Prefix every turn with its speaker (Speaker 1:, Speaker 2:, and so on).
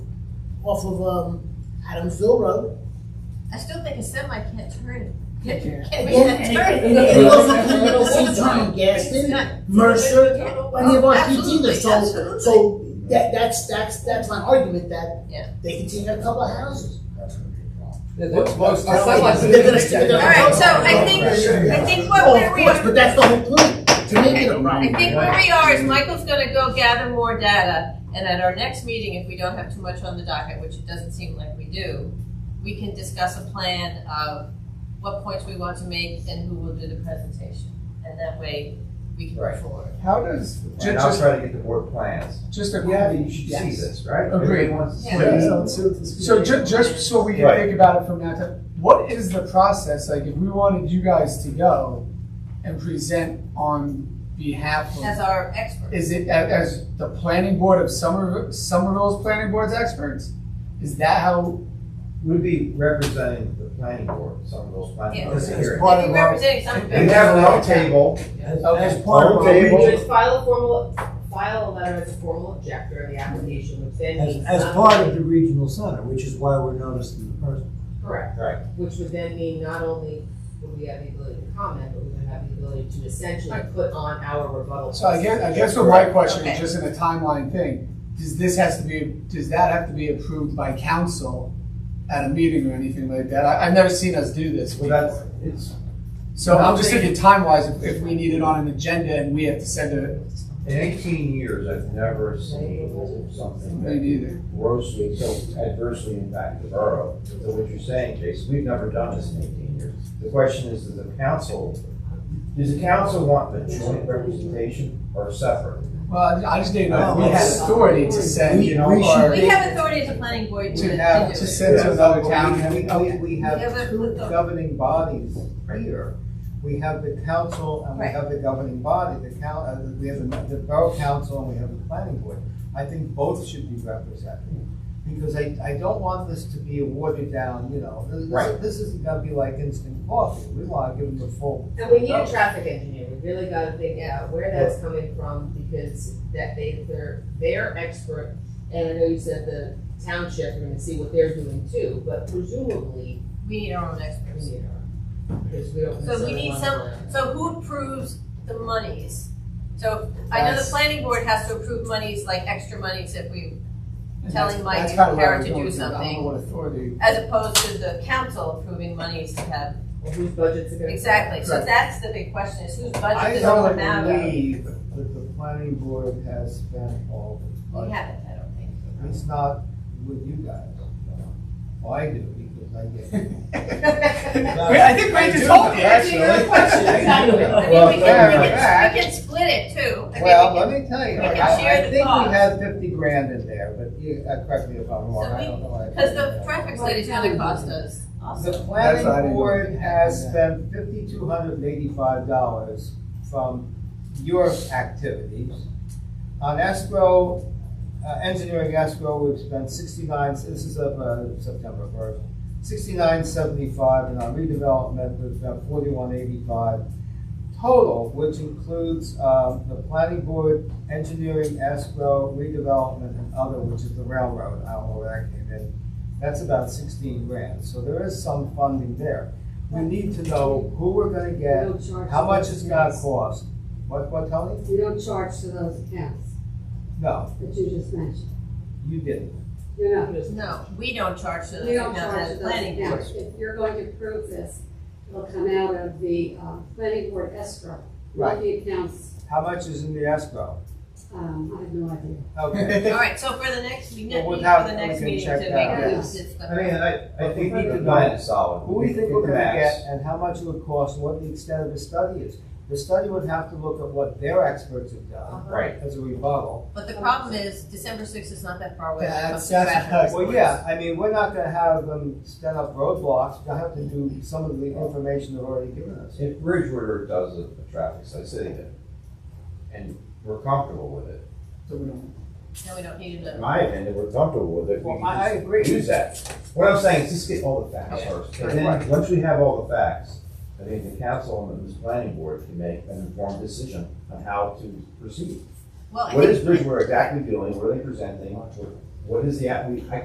Speaker 1: off of, um, Adamsville Road.
Speaker 2: I still think a semi can't turn.
Speaker 3: Can't turn.
Speaker 2: Can't make
Speaker 1: Again,
Speaker 2: that
Speaker 1: and-
Speaker 2: turn.
Speaker 1: and it goes up to Middle Seatown, Gaston, Mercer, any of our
Speaker 2: Absolutely,
Speaker 1: continues, so,
Speaker 2: absolutely.
Speaker 1: so that, that's, that's, that's my argument that
Speaker 2: Yeah.
Speaker 1: they can take a couple of houses.
Speaker 3: Most- most
Speaker 1: They're
Speaker 3: towns-
Speaker 1: gonna- they're gonna-
Speaker 2: All right, so I think, I think what,
Speaker 1: Oh,
Speaker 2: where
Speaker 1: of
Speaker 2: we
Speaker 1: course,
Speaker 2: are,
Speaker 1: but that's the whole point, to make it a
Speaker 2: I
Speaker 1: problem.
Speaker 2: think where we are is Michael's gonna go gather more data, and at our next meeting, if we don't have too much on the docket, which it doesn't seem like we do, we can discuss a plan of what points we want to make and who will do the presentation, and that way we can move
Speaker 4: Right.
Speaker 2: forward.
Speaker 3: How does, ju-
Speaker 4: And I'll
Speaker 3: just,
Speaker 4: try to get the board plans.
Speaker 3: just a
Speaker 4: Yeah,
Speaker 3: quick,
Speaker 4: you should see
Speaker 1: Yes.
Speaker 4: this, right?
Speaker 3: Agreed.
Speaker 4: Everybody wants to see
Speaker 2: Yeah.
Speaker 4: it.
Speaker 3: so ju- just so we can
Speaker 4: Right.
Speaker 3: think about it from that time, what is the process, like, if we wanted you guys to go and present on behalf
Speaker 2: As
Speaker 3: of,
Speaker 2: our expert,
Speaker 3: is it a- as the planning board of Somerville, Somerville's planning board's experts? Is that how,
Speaker 4: We'd be representing the planning board, some of those planning
Speaker 2: Yeah.
Speaker 4: boards
Speaker 5: This is
Speaker 4: here.
Speaker 5: part
Speaker 2: maybe
Speaker 5: of our-
Speaker 2: representing some.
Speaker 4: We have our own table,
Speaker 3: as part of
Speaker 4: own
Speaker 3: our
Speaker 4: table.
Speaker 6: Just file a formal, file a letter as a formal objector of the application, which then
Speaker 5: As,
Speaker 6: means.
Speaker 5: as
Speaker 6: not-
Speaker 5: part of the regional center, which is why we're noticing the person.
Speaker 6: Correct.
Speaker 4: Right.
Speaker 6: Which would then mean not only would we have the ability to comment, but we would have the ability to essentially put on our rebuttal.
Speaker 3: So I guess, I guess what my question is just in a timeline thing, does this has to be, does that have to be approved by council at a meeting or anything like that? I, I've never seen us do this
Speaker 4: Well,
Speaker 3: before.
Speaker 4: that's, it's,
Speaker 3: So I'm just thinking time wise, if, if we need it on an agenda and we have to send a,
Speaker 4: in eighteen years, I've never seen something
Speaker 3: maybe
Speaker 4: that
Speaker 3: either.
Speaker 4: grossly, so adversely impacted the borough. So what you're saying, Jason, we've never done this in eighteen years. The question is, does the council, does the council want the joint representation or separate?
Speaker 3: Well, I just didn't know, if we
Speaker 5: Oh,
Speaker 3: had
Speaker 5: yes.
Speaker 3: authority to send, you know,
Speaker 5: We- we should-
Speaker 3: or
Speaker 2: We have authority as a planning board to, to do
Speaker 3: to
Speaker 2: it.
Speaker 3: have, to send to another town.
Speaker 7: We, oh, we, we
Speaker 2: Yeah, but-
Speaker 7: have two governing bodies here. We have the council and we
Speaker 2: Right.
Speaker 7: have the governing body, the coun, uh, we have the, the borough council and we have the planning board. I think both should be represented, because I, I don't want this to be a watered down, you know, this,
Speaker 4: Right.
Speaker 7: this isn't gonna be like instant coffee. We wanna give them the full.
Speaker 6: And we need a traffic engineer, we really gotta think out where that's coming from, because that they, they're, they're expert. And I know you said the township, we're gonna see what they're doing too, but presumably,
Speaker 2: We need our own
Speaker 6: we
Speaker 2: experts.
Speaker 6: need our, because we don't.
Speaker 2: So we need
Speaker 6: necessarily want to-
Speaker 2: So who approves the monies? So I know the
Speaker 7: That's-
Speaker 2: planning board has to approve monies, like extra monies if we,
Speaker 3: And
Speaker 2: telling
Speaker 3: that's-
Speaker 2: Mike
Speaker 3: that's
Speaker 2: and
Speaker 3: kinda where
Speaker 2: Kara
Speaker 3: I'm
Speaker 2: to do
Speaker 3: going I don't know
Speaker 2: something.
Speaker 3: what authority.
Speaker 2: as opposed to the council approving monies to have.
Speaker 6: Well, whose budgets are gonna.
Speaker 2: Exactly, so
Speaker 3: Correct.
Speaker 2: that's the big question, is whose budget
Speaker 7: I
Speaker 2: does it
Speaker 7: don't
Speaker 2: come out of?
Speaker 7: believe that the planning board has spent all the
Speaker 2: We
Speaker 7: budget.
Speaker 2: haven't, I don't think.
Speaker 7: It's not with you guys. Well, I do, because I get.
Speaker 3: Wait, I think Ray just told you,
Speaker 2: I
Speaker 7: actually.
Speaker 2: mean, we
Speaker 7: Well,
Speaker 2: can, we
Speaker 7: yeah.
Speaker 2: can, we can split it too. I mean,
Speaker 7: Well,
Speaker 2: we
Speaker 7: let
Speaker 2: can-
Speaker 7: me tell you,
Speaker 2: we can
Speaker 7: I,
Speaker 2: share
Speaker 7: I
Speaker 2: the
Speaker 7: think
Speaker 2: cost.
Speaker 7: we have fifty grand in there, but you, uh, correct me if I'm wrong,
Speaker 2: So
Speaker 7: I
Speaker 2: we-
Speaker 7: don't know. I
Speaker 2: Cause
Speaker 7: think
Speaker 2: the
Speaker 7: that.
Speaker 2: traffic study is gonna cost us.
Speaker 7: The
Speaker 3: That's what I
Speaker 7: planning
Speaker 3: didn't
Speaker 7: board
Speaker 3: know.
Speaker 7: has spent fifty-two hundred and eighty-five dollars from your activities. On escrow, uh, engineering escrow, we've spent sixty-nine, this is of, uh, September first, sixty-nine seventy-five, and on redevelopment, we've got forty-one eighty-five. Total, which includes, um, the planning board, engineering escrow, redevelopment, and other, which is the railroad, I don't know where that came in. That's about sixteen grand, so there is some funding there. We need to know who we're gonna
Speaker 8: We
Speaker 7: get,
Speaker 8: don't charge.
Speaker 7: how
Speaker 8: to
Speaker 7: much
Speaker 8: those
Speaker 7: it's gonna
Speaker 8: accounts.
Speaker 7: cost. What, what, Tony?
Speaker 8: We don't charge to those accounts
Speaker 7: No,
Speaker 8: that you just mentioned.
Speaker 7: you didn't.
Speaker 8: You're not,
Speaker 2: No, we don't charge to
Speaker 8: we
Speaker 2: the
Speaker 8: don't
Speaker 2: town
Speaker 8: charge to
Speaker 2: as
Speaker 8: those
Speaker 2: planning board.
Speaker 8: accounts. If you're going to prove this, it'll come out of the, uh, planning board escrow.
Speaker 7: Right.
Speaker 8: Not the accounts,
Speaker 7: How much is in the escrow?
Speaker 8: um, I have no idea.
Speaker 7: Okay.
Speaker 2: All right, so for the next, we need
Speaker 7: Well,
Speaker 2: for
Speaker 7: without-
Speaker 2: the next
Speaker 7: we can
Speaker 2: meeting to
Speaker 7: check
Speaker 2: make
Speaker 7: that,
Speaker 2: this.
Speaker 8: yes.
Speaker 2: it's the-
Speaker 4: I mean, I, I
Speaker 7: But
Speaker 4: think
Speaker 7: we
Speaker 4: we
Speaker 7: need
Speaker 4: can
Speaker 7: to
Speaker 4: plan
Speaker 7: know
Speaker 4: it solid.
Speaker 7: Who we think
Speaker 4: can
Speaker 7: we're gonna
Speaker 4: max.
Speaker 7: get and how much it would cost, and what the extent of the study is. The study would have to look at what their experts have done
Speaker 4: Right.
Speaker 7: as a rebuttal.
Speaker 2: But the problem is, December sixth is not that far away. when it
Speaker 3: That's-
Speaker 2: comes to
Speaker 3: that's a
Speaker 2: traffic.
Speaker 3: fact.
Speaker 7: Well, yeah, I mean, we're not gonna have them stand up roadblocks, they'll have to do some of the information they've already given us.
Speaker 4: If Bridgewater does a, a traffic study, city did, and we're comfortable with it,
Speaker 3: So we don't-
Speaker 2: No, we don't need
Speaker 4: in
Speaker 2: another.
Speaker 4: my opinion, we're comfortable with it. we
Speaker 7: Well,
Speaker 4: can
Speaker 7: I, I
Speaker 4: just
Speaker 7: agree.
Speaker 4: Use that. What I'm saying is just get all the facts first, and then, once we have all the facts, I think the council and the planning board can make an informed decision on how to proceed.
Speaker 2: Well, I
Speaker 4: What
Speaker 2: think
Speaker 4: is Bridgewater exactly doing, what are they presenting, what is the, app- we- I